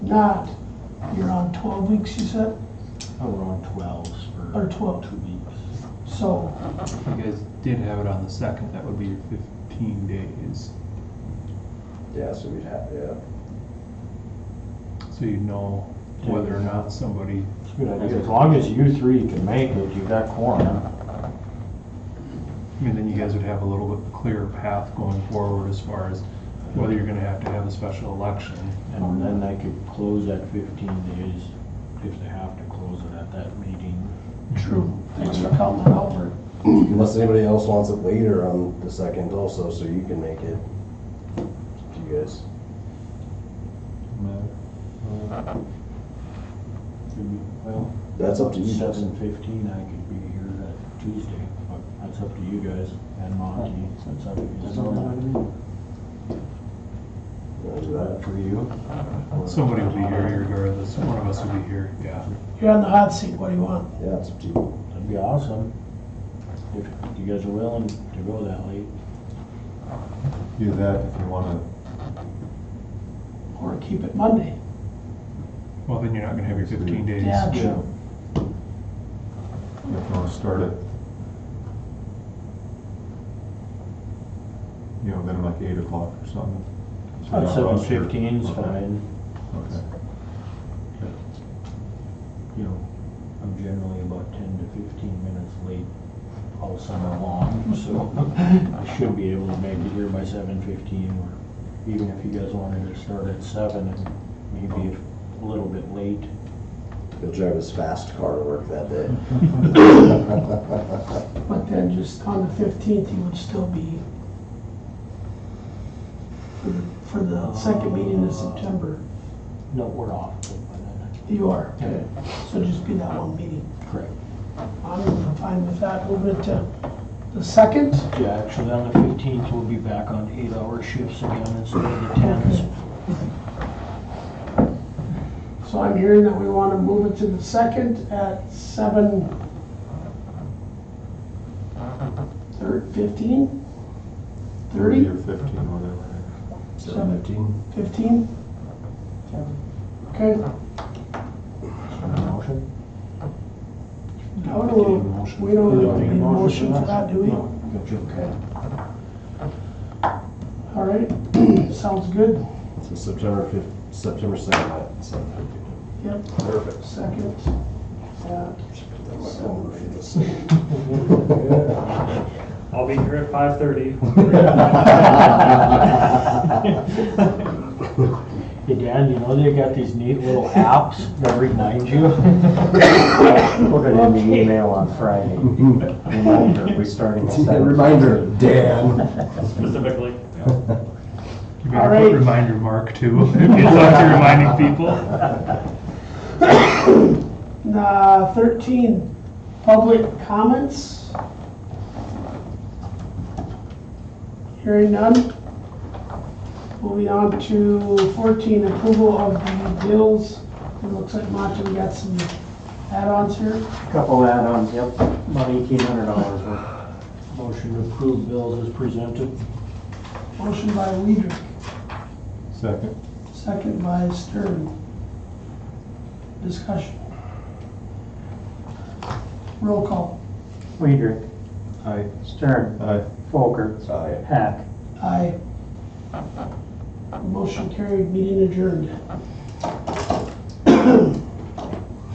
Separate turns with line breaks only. not, you're on twelve weeks, you said,
Oh, we're on twelves
or
for
twelve,
two weeks.
so,
You guys did have it on the second, that would be your fifteen days,
Yeah, so we'd have, yeah.
so you know whether or not somebody,
It's a good idea. As long as you three can make it, you got quorum.
I mean, then you guys would have a little bit clearer path going forward as far as whether you're gonna have to have a special election.
And then they could close at fifteen days if they have to close it at that meeting.
true, thanks for calling that out, Bert.
Unless anybody else wants it later on the second also, so you can make it. Up to you guys.
Could be- Well,
That's up to you. guys.
seven fifteen, I could be here that Tuesday, but that's up to you guys and Monty. That's up to you.
You wanna do
Is that
that?
for you?
Somebody will be here regardless, one of us will be here, yeah.
You're on the hot seat, what do you want?
Yeah, it's up to you.
That'd be awesome. If you guys are willing to go that late.
Do that if you wanna,
Or keep it Monday?
Well, then you're not gonna have your fifteen days.
Yeah, true,
if you wanna start at, you know, then like eight o'clock or something. So we're not
Seven
rushed or-
fifteen's
okay,
fine,
Okay.
you know, I'm generally about ten to fifteen minutes late all summer long, so I should be able to make it here by seven fifteen, or even if you guys wanted to start at seven, and maybe a little bit late.
You'll drive his fast car to work that day.
but then just on the fifteenth, you would still be for- for the second meeting in September,
No, we're off by then.
you are, so just be that one meeting.
Correct.
I'm fine with that, move it to the second,
Yeah, actually, on the fifteenth, we'll be back on eight-hour shifts again instead of the tens.
so I'm hearing that we want to move it to the second at seven thir- fifteen?
Thirty
Thirty?
or fifteen, whatever.
Seven Fifteen? Okay,
Motion?
now do we, we don't
You
need a motion for that, do we?
No, you can-
Okay. All right, sounds good,
So September fif, September second at seven fifteen.
yep,
Perfect.
second. Uh, at
I'll be here at five thirty.
Hey Dan, you know they got these neat little apps that remind you?
Put it in the email on Friday. Reminder, we're starting at
A
seven.
Reminder, Dan.
Specifically,
You
All
better
right.
put reminder mark too, if you talk to reminding people.
Uh, 13, public comments. Hearing none. Moving on to 14, approval of the bills. It looks like Monty got some add-ons here.
Couple add-ons, yep, about eighteen hundred dollars worth.
Motion to approve bills as presented.
Motion by Weidrich,
Second.
second by Stern. Discussion. Roll call.
Weidrich,
Aye.
Stern,
Aye.
Folker,
Aye.
Hack.
Aye. Motion carried, meeting adjourned.